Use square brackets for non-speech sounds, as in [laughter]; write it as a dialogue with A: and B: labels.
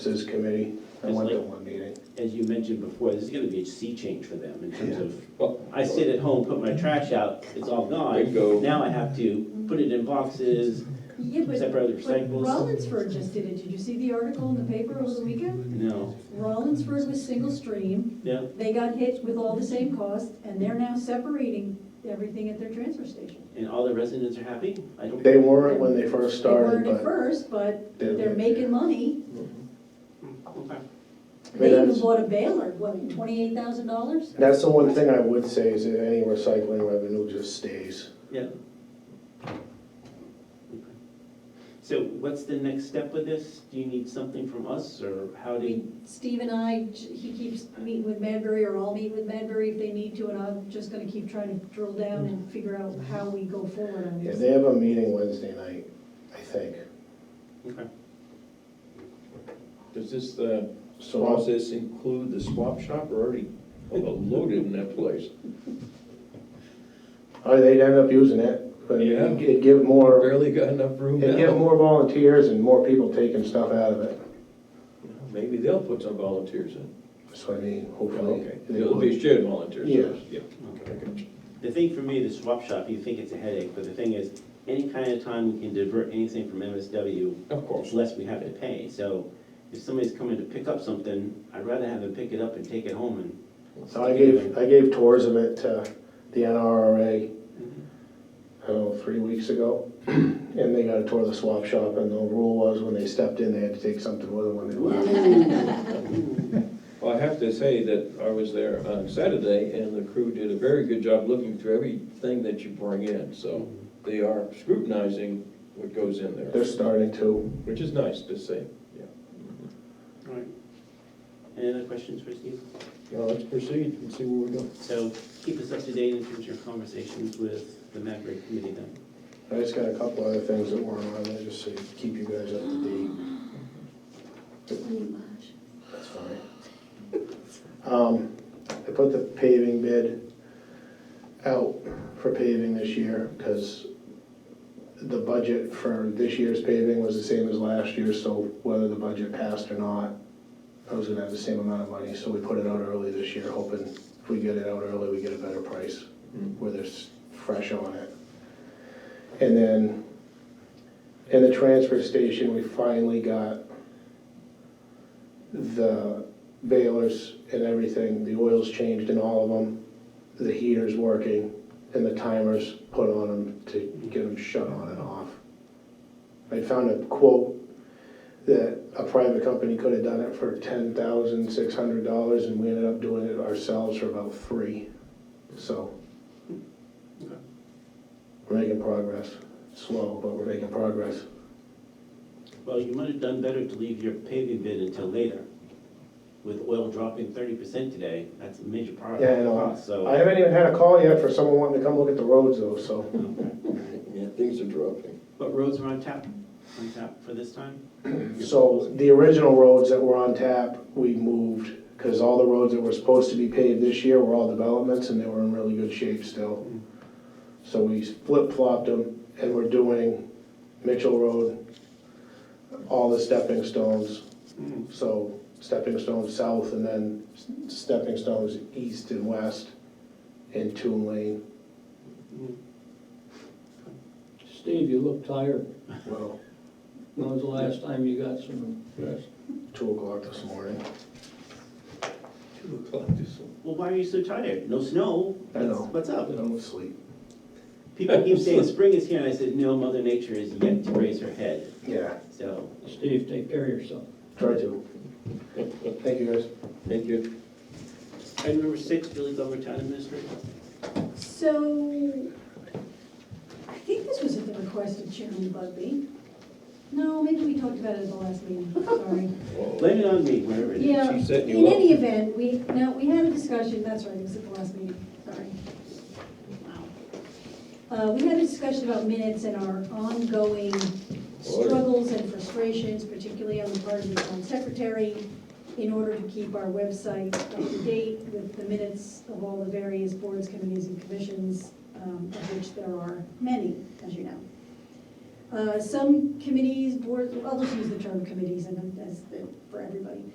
A: Services Committee. I went to one meeting.
B: as you mentioned before, this is gonna be a sea change for them in terms
A: Yeah.
B: of,
C: Well,
B: I sit at home, put my trash out, it's all gone.
C: Bingo.
B: Now I have to put it in boxes,
D: Yeah, but,
B: separate the
D: but
B: recyclables.
D: Rollinsford just did it. Did you see the article in the paper over the weekend?
B: No,
D: Rollinsford was single stream.
B: yeah,
D: They got hit with all the same costs and they're now separating everything at their transfer station.
B: and all the residents are happy? I don't,
A: They weren't when they first
D: They
A: started,
D: weren't at
A: but.
D: first, but
A: they're-
D: they're making money.
B: okay.
A: mean,
D: They even
A: that's-
D: bought a baler, what, twenty-eight thousand dollars?
A: That's the one thing I would say is that any recycling revenue just stays.
B: Yeah. Okay. So what's the next step with this? Do you need something from us, or how
D: I
B: do you?
D: mean, Steve and I, j- he keeps meeting with Madbury, or I'll meet with Madbury if they need to, and I'm just gonna keep trying to drill down and figure out how we go forward on
A: Yeah,
D: this.
A: they have a meeting Wednesday night, I think.
B: Okay.
C: does this uh,
A: So I'll-
C: process include the swap shop? We're already loaded in that place.
A: Oh, they'd end up using it, but
C: Yeah.
A: it'd it'd give more,
C: Barely got enough room
A: it'd give
C: now.
A: more volunteers and more people taking stuff out of it.
C: Maybe they'll put some volunteers in.
A: So I mean,
C: Okay,
A: hopefully. they
C: it'll
A: would.
C: be shared volunteers.
A: Yeah.
C: Okay, I got you.
B: The thing for me, the swap shop, you think it's a headache, but the thing is, any kind of time we can divert anything from MSW,
C: Of
B: it's
C: course.
B: less we have to pay. So if somebody's coming to pick up something, I'd rather have them pick it up and take it home and.
A: So I gave, I gave tours of it to the NRRA, I don't know, three weeks ago. [clears throat] And they got a tour of the swap shop and the rule was when they stepped in, they had to take something with them when they left.
C: Well, I have to say that I was there on Saturday, and the crew did a very good job looking through everything that you bring in. So they are scrutinizing what goes in there,
A: They're starting to.
C: which is nice to see. Yeah.
B: Alright. Any other questions for Steve?
C: Well, let's proceed and see where we go.
B: So keep us up to date in terms of your conversations with the Maverick committee then.
A: I just got a couple other things that weren't on there, just to keep you guys up to date. That's fine. Um, I put the paving bid out for paving this year, because the budget for this year's paving was the same as last year's, so whether the budget passed or not, I was gonna have the same amount of money, so we put it out early this year, hoping if we get it out early, we get a better price, where there's fresh on it. And then, in the transfer station, we finally got the balers and everything, the oil's changed in all of them, the heater's working, and the timer's put on them to get them shut on and off. I found a quote that a private company could have done it for ten thousand six hundred dollars, and we ended up doing it ourselves for about three, so.
B: Okay.
A: We're making progress, slow, but we're making progress.
B: Well, you might have done better to leave your paving bid until later. With oil dropping thirty percent today, that's a major part
A: Yeah, I
B: of the
A: know,
B: cost, so.
A: I haven't even had a call yet for someone wanting to come look at the roads though, so.
C: Yeah, things are dropping.
B: But roads are on tap, on tap for this time?
A: So the original roads that were on tap, we moved, because all the roads that were supposed to be paved this year were all developments and they were in really good shape still. So we flip-flopped them and we're doing Mitchell Road, all the stepping stones.
B: Mm.
A: So stepping stones south and then s- stepping stones east and west in Toon Lane.
B: Mm.
E: Steve, you look tired.
A: Well,
E: When was the last time you got some rest?
A: two o'clock this morning.
C: Two o'clock this morning.
B: Well, why are you so tired? No snow?
A: I
B: What's-
A: know.
B: What's up?
A: I'm asleep.
B: People keep saying spring is here, and I said, no, Mother Nature is yet to raise her head,
A: Yeah,
B: so.
E: Steve, take care of yourself.
A: try to. Thank you guys.
C: Thank you.
B: Item number six, Billy Glover, Town Administrator.
D: So, I think this was at the request of Chairman Bugby. No, maybe we talked about it at the last meeting, sorry.
B: Blame it on me, whatever it is.
D: Yeah,
C: She set you
D: in
C: up.
D: any event, we, no, we had a discussion, that's right, it was at the last meeting, sorry. Wow. Uh, we had a discussion about minutes and our ongoing struggles and frustrations, particularly on the part of the town secretary, in order to keep our website up to date with the minutes of all the various boards, committees, and commissions, um, of which there are many, as you know. Uh, Some committees, boards, I'll just use the term committees and that's it for everybody.